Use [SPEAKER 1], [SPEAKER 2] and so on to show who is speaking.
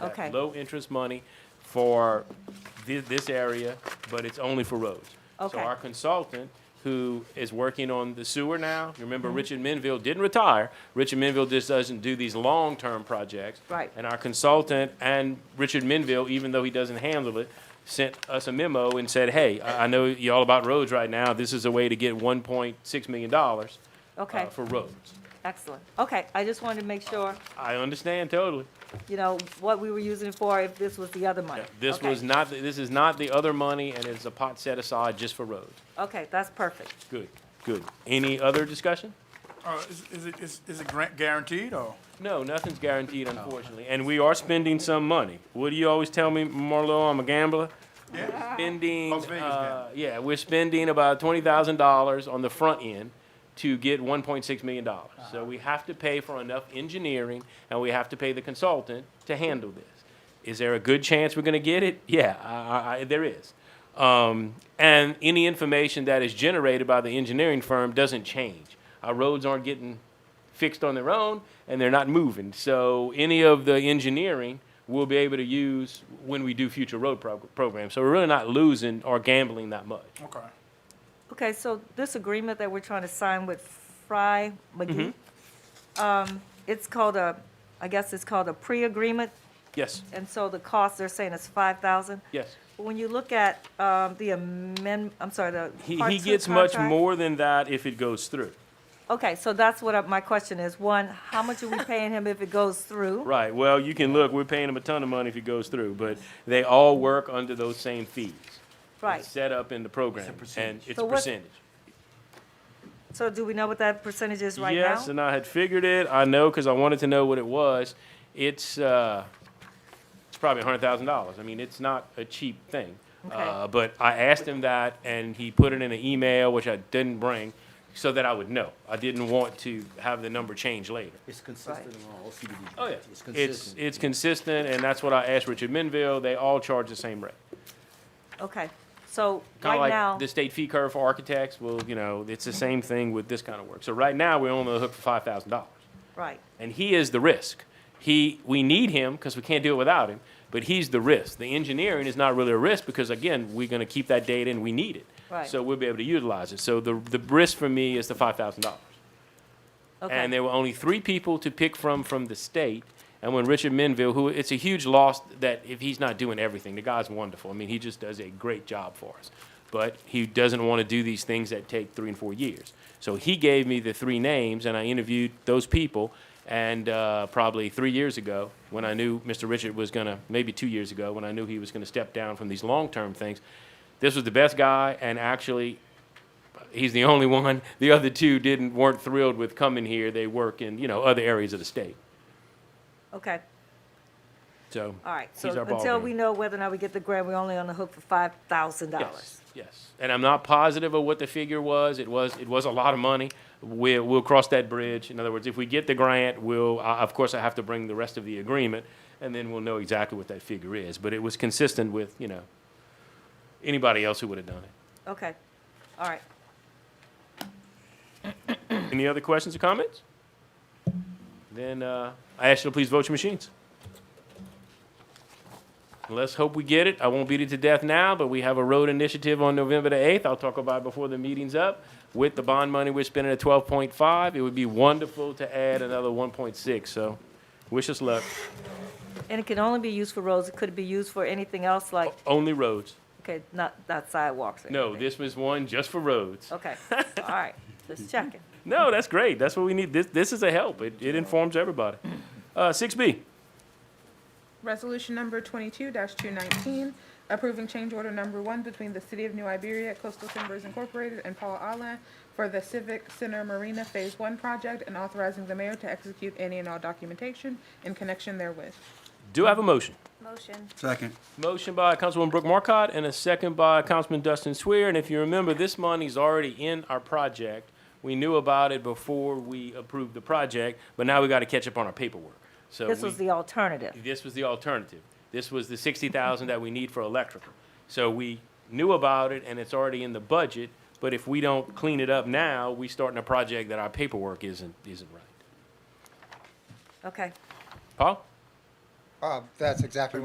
[SPEAKER 1] that
[SPEAKER 2] Okay.
[SPEAKER 1] Low-interest money for thi- this area, but it's only for roads. So
[SPEAKER 2] Okay.
[SPEAKER 1] our consultant, who is working on the sewer now, you
[SPEAKER 2] Mm-hmm.
[SPEAKER 1] remember Richard Menville didn't retire. Richard Menville just doesn't do these long-term projects.
[SPEAKER 2] Right.
[SPEAKER 1] And our consultant and Richard Menville, even though he doesn't handle it, sent us a memo and said, hey, I I know you all about roads right now. This is a way to get one point six million dollars uh,
[SPEAKER 2] Okay,
[SPEAKER 1] for roads.
[SPEAKER 2] excellent. Okay, I just wanted to make sure,
[SPEAKER 1] I understand totally.
[SPEAKER 2] you know, what we were using it for, if this was the other money.
[SPEAKER 1] This
[SPEAKER 2] Okay.
[SPEAKER 1] was not, this is not the other money, and it's a pot set aside just for roads.
[SPEAKER 2] Okay, that's perfect.
[SPEAKER 1] Good, good. Any other discussion?
[SPEAKER 3] Uh, is, is it, is, is it grant guaranteed or?
[SPEAKER 1] No, nothing's guaranteed, unfortunately, and we are spending some money. What do you always tell me, Marlo, I'm a gambler?
[SPEAKER 3] Yeah.
[SPEAKER 1] Spending,
[SPEAKER 3] Las Vegas
[SPEAKER 1] uh, yeah, we're spending about twenty thousand dollars on the front end to get one point six million dollars. So we have to pay for enough engineering, and we have to pay the consultant to handle this. Is there a good chance we're gonna get it? Yeah, I, I, I, there is. Um, and any information that is generated by the engineering firm doesn't change. Our roads aren't getting fixed on their own and they're not moving. So any of the engineering we'll be able to use when we do future road prog- programs. So we're really not losing or gambling that much.
[SPEAKER 3] Okay.
[SPEAKER 2] Okay, so this agreement that we're trying to sign with Fry McGee,
[SPEAKER 1] Mm-hmm.
[SPEAKER 2] um, it's called a, I guess it's called a pre-agreement,
[SPEAKER 1] Yes,
[SPEAKER 2] and so the cost, they're saying is five thousand.
[SPEAKER 1] yes.
[SPEAKER 2] When you look at, um, the amend, I'm sorry, the
[SPEAKER 1] He,
[SPEAKER 2] part
[SPEAKER 1] he
[SPEAKER 2] two
[SPEAKER 1] gets much
[SPEAKER 2] contract-
[SPEAKER 1] more than that if it goes through.
[SPEAKER 2] Okay, so that's what I- my question is. One, how much are we paying him if it goes through?
[SPEAKER 1] Right. Well, you can look, we're paying him a ton of money if it goes through, but they all work under those same fees.
[SPEAKER 2] Right.
[SPEAKER 1] Set up in the program. And it's
[SPEAKER 2] So
[SPEAKER 1] a
[SPEAKER 2] what-
[SPEAKER 1] percentage.
[SPEAKER 2] So do we know what that percentage is right now?
[SPEAKER 1] yes, and I had figured it. I know because I wanted to know what it was. It's uh, it's probably hundred thousand dollars. I mean, it's not a cheap thing.
[SPEAKER 2] Okay.
[SPEAKER 1] Uh, but I asked him that, and he put it in an email, which I didn't bring, so that I would know. I didn't want to have the number change later.
[SPEAKER 4] It's consistent in all CBD.
[SPEAKER 1] Oh yeah,
[SPEAKER 4] It's
[SPEAKER 1] it's
[SPEAKER 4] consistent.
[SPEAKER 1] it's consistent, and that's what I asked Richard Menville. They all charge the same rate.
[SPEAKER 2] Okay, so
[SPEAKER 1] Kind of
[SPEAKER 2] right
[SPEAKER 1] like
[SPEAKER 2] now,
[SPEAKER 1] the state fee curve for architects. Well, you know, it's the same thing with this kind of work. So right now, we're on the hook for five thousand dollars.
[SPEAKER 2] right,
[SPEAKER 1] and he is the risk. He, we need him because we can't do it without him, but he's the risk. The engineering is not really a risk because again, we're going to keep that data and we need it.
[SPEAKER 2] Right.
[SPEAKER 1] So we'll be able to utilize it. So the, the risk for me is the five thousand dollars. And
[SPEAKER 2] okay,
[SPEAKER 1] there were only three people to pick from from the state. And when Richard Menville, who it's a huge loss that if he's not doing everything, the guy's wonderful. I mean, he just does a great job for us. But he doesn't want to do these things that take three and four years. So he gave me the three names, and I interviewed those people. And uh, probably three years ago, when I knew Mr. Richard was going to, maybe two years ago, when I knew he was going to step down from these long term things, this was the best guy. And actually, he's the only one. The other two didn't weren't thrilled with coming here. They work in you know other areas of the state.
[SPEAKER 2] okay,
[SPEAKER 1] So
[SPEAKER 2] all right. So
[SPEAKER 1] he's our ball
[SPEAKER 2] until
[SPEAKER 1] game.
[SPEAKER 2] we know whether or not we get the grant, we're only on the hook for five thousand dollars.
[SPEAKER 1] Yes, yes, and I'm not positive of what the figure was. It was it was a lot of money. We'll we'll cross that bridge. In other words, if we get the grant, we'll I of course I have to bring the rest of the agreement, and then we'll know exactly what that figure is. But it was consistent with you know anybody else who would have done it.
[SPEAKER 2] Okay, all right,
[SPEAKER 1] Any other questions or comments? Then uh, I ask you to please vote your machines. Let's hope we get it. I won't beat it to death now, but we have a road initiative on November the 8th. I'll talk about it before the meeting's up. With the bond money we're spending at 12.5, it would be wonderful to add another 1.6. So wish us luck.
[SPEAKER 2] and it can only be used for roads, it could be used for anything else like,
[SPEAKER 1] Only roads.
[SPEAKER 2] okay, not, not sidewalks or
[SPEAKER 1] Oh. No,
[SPEAKER 2] anything.
[SPEAKER 1] this was one just for roads.
[SPEAKER 2] Okay, all right, just checking.
[SPEAKER 1] No, that's great. That's what we need. This, this is a help. It, it informs everybody. Uh, 6B.
[SPEAKER 5] Resolution number twenty-two two nineteen, approving change order number one between the City of New Iberia Coastal Timbers Incorporated and Paul Allen for the Civic Center Marina Phase One project and authorizing the mayor to execute any and all documentation in connection therewith.
[SPEAKER 1] Do I have a motion?
[SPEAKER 6] Motion.
[SPEAKER 4] Second.
[SPEAKER 1] Motion by Councilwoman Brooke Marcotte and a second by Councilman Dustin Swear. And if you remember, this money's already in our project. We knew about it before we approved the project, but now we got to catch up on our paperwork. So
[SPEAKER 2] This
[SPEAKER 1] we-
[SPEAKER 2] was the alternative.
[SPEAKER 1] this was the alternative. This was the sixty thousand that we need for electrical. So we knew about it and it's already in the budget, but if we don't clean it up now, we starting a project that our paperwork isn't, isn't right.
[SPEAKER 2] Okay,
[SPEAKER 1] Paul?
[SPEAKER 7] Uh, That's exactly